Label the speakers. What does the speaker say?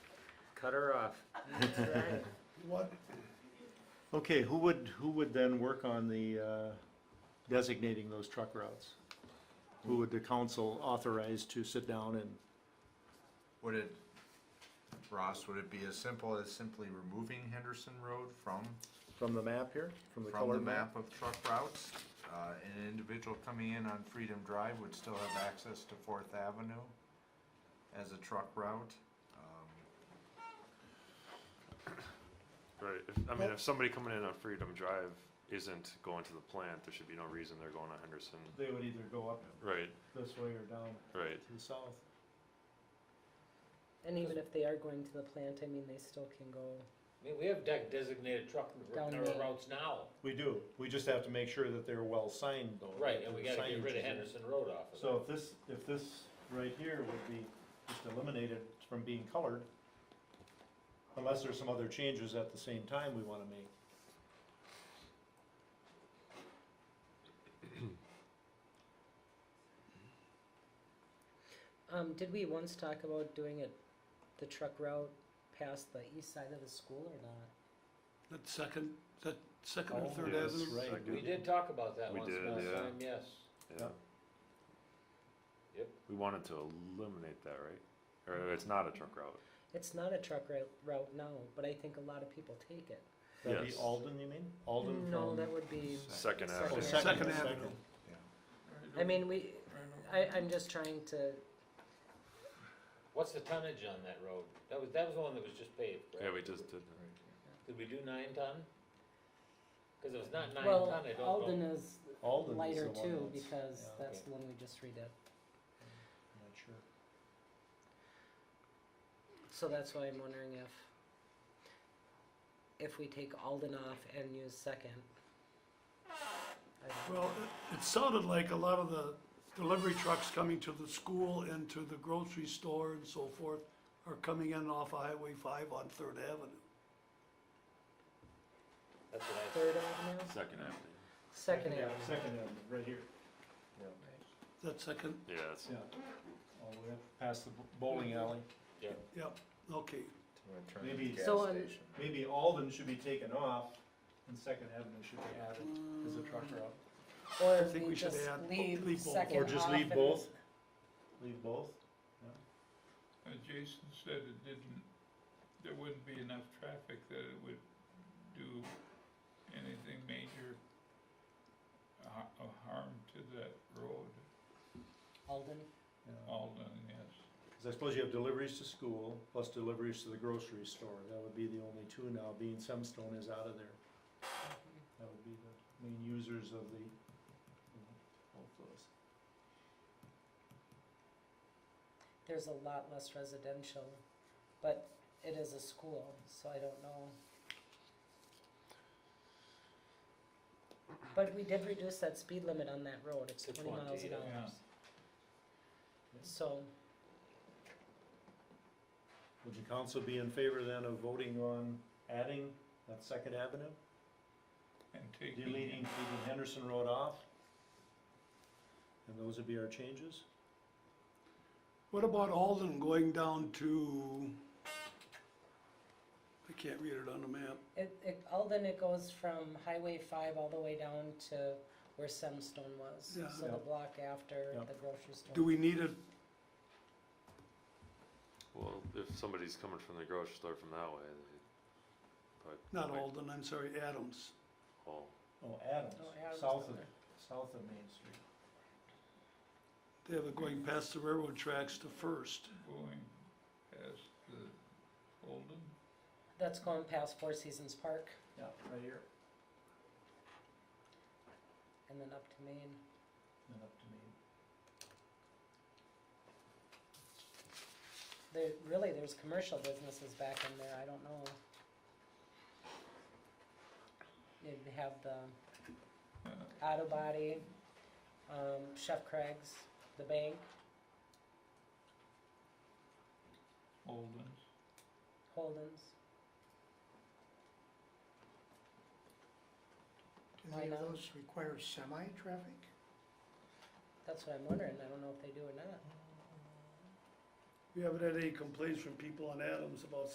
Speaker 1: cut her off.
Speaker 2: What,
Speaker 3: Okay, who would, who would then work on the, uh, designating those truck routes? Who would the council authorize to sit down and,
Speaker 4: Would it, Ross, would it be as simple as simply removing Henderson Road from,
Speaker 3: from the map here, from the
Speaker 4: from the
Speaker 3: color
Speaker 4: map of truck routes? Uh, an individual coming in on Freedom Drive would still have access to Fourth Avenue as a truck route? Um,
Speaker 5: Right, if, I mean, if somebody coming in on Freedom Drive isn't going to the plant, there should be no reason they're going to Henderson.
Speaker 3: They would either go up
Speaker 5: Right,
Speaker 3: this way or down
Speaker 5: right,
Speaker 3: to the south.
Speaker 6: And even if they are going to the plant, I mean, they still can go,
Speaker 1: I mean, we have de- designated truck
Speaker 6: Down
Speaker 1: narrow
Speaker 6: there.
Speaker 1: routes now,
Speaker 3: We do, we just have to make sure that they're well signed though.
Speaker 1: right,
Speaker 3: that
Speaker 1: and we
Speaker 3: the
Speaker 1: gotta get
Speaker 3: signage
Speaker 1: rid of
Speaker 3: is-
Speaker 1: Henderson Road off of
Speaker 3: So if this, if this right here would be just eliminated from being colored, unless there's some other changes at the same time we wanna make.
Speaker 6: um, did we once talk about doing it, the truck route past the east side of the school or not?
Speaker 2: that second, that second or
Speaker 3: Oh,
Speaker 2: third
Speaker 5: yes.
Speaker 2: avenue?
Speaker 3: Right.
Speaker 1: it. We did talk about that
Speaker 5: We
Speaker 1: once
Speaker 5: did,
Speaker 1: last
Speaker 5: yeah.
Speaker 1: time, yes.
Speaker 5: yeah.
Speaker 1: Yep.
Speaker 5: We wanted to eliminate that, right? Or it's not a truck route.
Speaker 6: It's not a truck route, route now, but I think a lot of people take it.
Speaker 3: That'd be
Speaker 5: Yes.
Speaker 3: Alden, you mean? Alden from?
Speaker 6: No, that would be,
Speaker 5: Second
Speaker 6: Second
Speaker 3: Oh,
Speaker 5: Avenue.
Speaker 6: Avenue.
Speaker 2: Second
Speaker 3: yeah,
Speaker 2: Avenue.
Speaker 6: I mean, we, I, I'm just trying to,
Speaker 1: What's the tonnage on that road? That was, that was the one that was just paved, right?
Speaker 5: Yeah, we just did that.
Speaker 1: Did we do nine ton? Cause if it's not nine ton,
Speaker 6: well,
Speaker 1: I don't know.
Speaker 6: Alden is
Speaker 3: Alden's
Speaker 6: lighter
Speaker 3: the one
Speaker 6: too,
Speaker 3: that's-
Speaker 6: because
Speaker 3: yeah,
Speaker 6: that's
Speaker 1: okay.
Speaker 6: the one we just redid.
Speaker 3: I'm not sure.
Speaker 6: So that's why I'm wondering if, if we take Alden off and use second. I don't know.
Speaker 2: Well, it- it sounded like a lot of the delivery trucks coming to the school and to the grocery store and so forth are coming in off of Highway five on Third Avenue.
Speaker 1: That's what I,
Speaker 6: Third Avenue,
Speaker 5: Second Avenue.
Speaker 6: second Avenue.
Speaker 3: Second Avenue, right here.
Speaker 2: That second,
Speaker 5: Yeah, it's,
Speaker 3: Yeah. All the way up past the bowling alley.
Speaker 2: yep, okay.
Speaker 4: when it turns into
Speaker 3: Maybe-
Speaker 4: gas
Speaker 6: So on-
Speaker 4: station.
Speaker 3: Maybe Alden should be taken off and Second Avenue should be added as a truck route.
Speaker 6: Or
Speaker 2: I
Speaker 6: if
Speaker 2: think
Speaker 6: we
Speaker 2: we should
Speaker 6: just
Speaker 2: add-
Speaker 6: leave
Speaker 2: leave both.
Speaker 6: second
Speaker 3: Or just
Speaker 6: off
Speaker 3: leave
Speaker 6: and-
Speaker 3: both? Leave both?
Speaker 7: Uh, Jason said it didn't, there wouldn't be enough traffic that it would do anything major ha- uh, harm to that road,
Speaker 6: Alden,
Speaker 3: Yeah.
Speaker 7: Alden, yes.
Speaker 3: Cause I suppose you have deliveries to school plus deliveries to the grocery store. That would be the only two now, being Semstone is out of there. That would be the main users of the, you know, both those.
Speaker 6: there's a lot less residential, but it is a school, so I don't know. But we did reduce that speed limit on that road, it's
Speaker 1: To
Speaker 6: twenty miles
Speaker 1: 20,
Speaker 6: an
Speaker 1: yeah.
Speaker 6: hour.
Speaker 7: Yeah.
Speaker 6: So,
Speaker 3: Would the council be in favor then of voting on adding that Second Avenue?
Speaker 7: And taking.
Speaker 3: Deleting, taking Henderson Road off? And those would be our changes?
Speaker 2: What about Alden going down to, I can't read it on the map.
Speaker 6: it, it, Alden, it goes from Highway five all the way down to where Semstone was,
Speaker 2: Yeah.
Speaker 6: so the
Speaker 3: Yep.
Speaker 6: block after
Speaker 3: Yep.
Speaker 6: the grocery store.
Speaker 2: Do we need it,
Speaker 5: well, if somebody's coming from the grocery store from that way, they probably.
Speaker 2: not Alden, I'm sorry, Adams.
Speaker 5: Oh,
Speaker 3: Oh, Adams,
Speaker 6: Oh, Adams
Speaker 3: south
Speaker 6: down
Speaker 3: of,
Speaker 6: there.
Speaker 3: south of Main Street.
Speaker 2: They have it going past the railroad tracks to First.
Speaker 7: Going past the Alden.
Speaker 6: That's going past Four Seasons Park
Speaker 3: Yeah, right here,
Speaker 6: and then up to Maine.
Speaker 3: and up to Main.
Speaker 6: There, really, there's commercial businesses back in there, I don't know. You'd have the auto body, um, Chef Craig's, the bank,
Speaker 7: Alden's.
Speaker 6: Holden's.
Speaker 8: Do any
Speaker 6: Why
Speaker 8: of
Speaker 6: not?
Speaker 8: those require semi-traffic?
Speaker 6: That's what I'm wondering, I don't know if they do or not.
Speaker 2: We haven't had any complaints from people on Adams about